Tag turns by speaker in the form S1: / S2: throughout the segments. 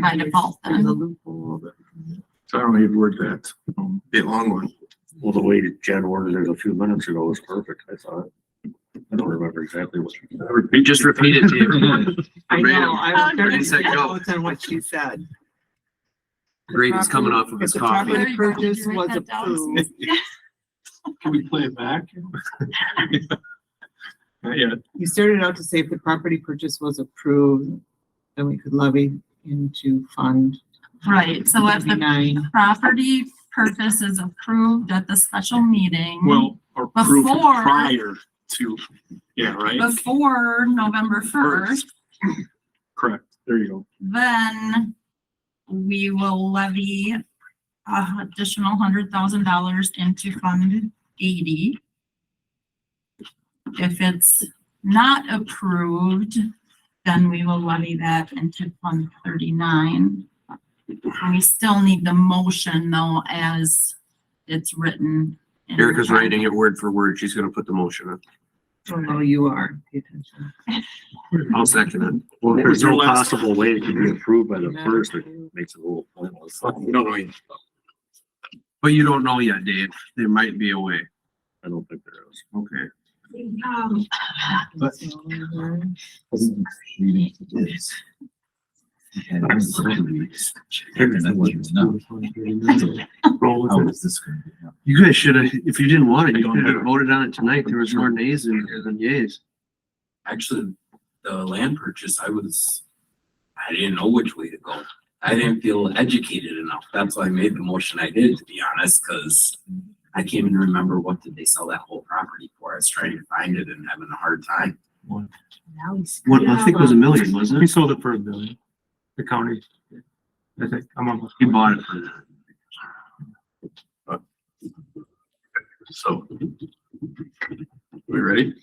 S1: kind of all
S2: There's a
S1: them.
S2: loophole that- So I don't know how you word that. Um, Be a long one.
S3: Well, the way that Jen ordered it a few minutes ago was perfect, I thought. I don't remember exactly what.
S4: We just repeated to you.
S2: I know, I was
S1: Really?
S2: starting to
S4: Go.
S2: notes on what she said.
S4: Gravy's coming off of his
S2: If the property
S4: coffee.
S1: coffee.
S2: Purchase
S1: Write
S2: was
S1: that down.
S2: approved.
S5: Can we play it back? Not yet.
S2: You started out to say if the property purchase was approved, then we could levy into fund.
S1: Right, so if the
S2: Nine.
S1: property purchase is approved at the special meeting.
S5: Well, or proof
S1: Before-
S5: prior to, yeah, right?
S1: Before November first,
S5: Correct. There you go.
S1: then we will levy uh, additional hundred thousand dollars into Fund eighty. If it's not approved, then we will levy that into Fund thirty-nine. And We still need the motion though as it's written. in the
S4: Erica's writing it word for word. She's gonna put the motion in.
S2: Oh, you are. Pay attention.
S4: I'll second it.
S3: Well,
S5: What was
S3: there's
S5: your
S3: no
S5: last-
S3: possible way it can be approved by the first, it
S2: Matter.
S3: makes it a little pointless.
S2: Oh,
S4: You don't know yet. But you don't know yet, Dave. There might be a way.
S3: I don't think there is.
S4: Okay.
S1: Um,
S4: You guys should have, if you didn't want it, you should have voted on it tonight. There was more nays than than yays.
S6: actually, the land purchase, I was, I didn't know which way to go. I didn't feel educated enough. That's why I made the motion I did, to be honest, because I can't even remember what did they sell that whole property for. I was trying to find it and having a hard time.
S4: What, I think it was a million, wasn't
S5: We
S4: it?
S5: sold it for a billion. The county. I think, I'm on.
S4: He bought it for that.
S6: So. We ready?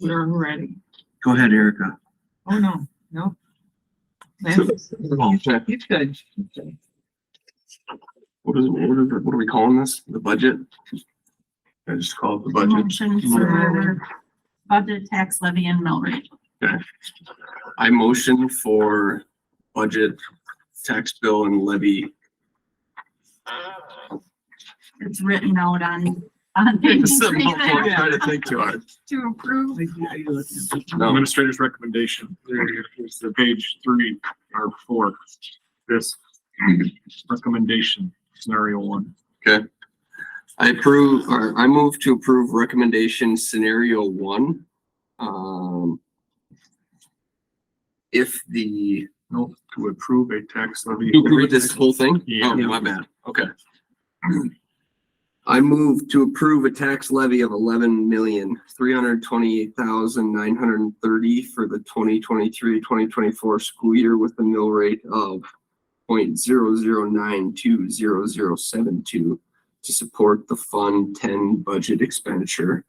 S2: We're ready.
S4: Go ahead, Erica.
S2: Oh, no, no. Lance, You could.
S6: What is, what are, what are we calling this? The budget? I just call it the budget.
S1: Motion for budget tax levy and mill rate.
S6: I motion for budget, tax bill and levy
S1: It's written out on, on page three there
S6: Trying to think too hard.
S1: to approve.
S5: Administrator's recommendation. There it is, the page three or four. This recommendation, scenario one.
S7: I approve, or I move to approve recommendation scenario one. Um, if the,
S5: Nope, to approve a tax levy.
S7: to approve this whole thing?
S5: Yeah.
S7: Oh, my bad. Okay. I move to approve a tax levy of eleven million, three hundred twenty-eight thousand, nine hundred and thirty for the 2023-2024 school year with a mill rate of point zero zero nine two zero zero seven two to support the Fund Ten budget expenditure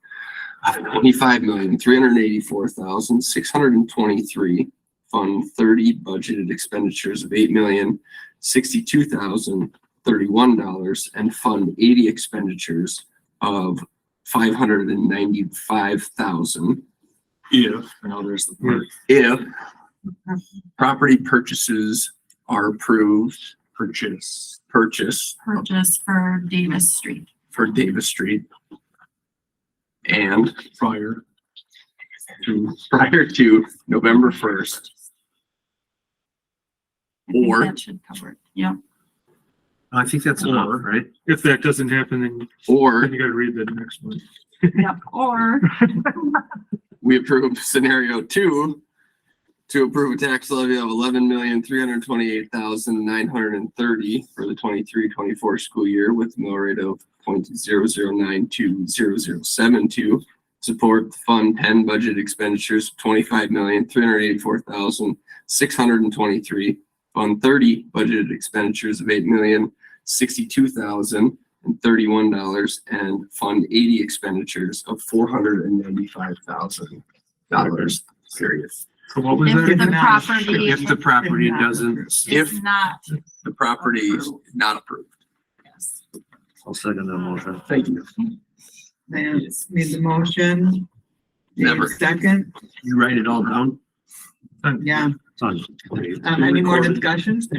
S7: of twenty-five million, three hundred eighty-four thousand, six hundred and twenty-three. Fund Thirty budgeted expenditures of eight million, sixty-two thousand, thirty-one dollars and Fund Eighty expenditures of five hundred and ninety-five thousand.
S5: If,
S7: Now there's the word. If property purchases are approved,
S5: purchase.
S7: purchase
S1: purchase for Davis Street.
S7: for Davis Street. And
S5: prior.
S7: to, prior to November first,
S1: I think
S7: Or-
S1: That should cover it, yeah.
S4: I think that's enough,
S5: Or-
S4: right?
S5: If that doesn't happen, then
S7: or
S5: you gotta read the next one.
S1: Yep, or
S7: we approve scenario two to approve a tax levy of eleven million, three hundred twenty-eight thousand, nine hundred and thirty for the 23-24 school year with mill rate of point zero zero nine two zero zero seven two. Support the Fund Ten budget expenditures of twenty-five million, three hundred eighty-four thousand, six hundred and twenty-three. Fund Thirty budgeted expenditures of eight million, sixty-two thousand, and thirty-one dollars and Fund Eighty expenditures of four hundred and ninety-five thousand dollars, period.
S5: So what was
S1: if the
S5: that?
S1: property.
S4: If the property doesn't,
S1: If
S7: If-
S1: not,
S7: The property is not approved.
S1: yes.
S3: I'll second that motion.
S7: Thank you.
S2: Lance made the motion. Dave
S7: Never.
S2: Second,
S4: you write it all down.
S2: Yeah.
S3: It's on.
S2: Uh, Um, any more discussions?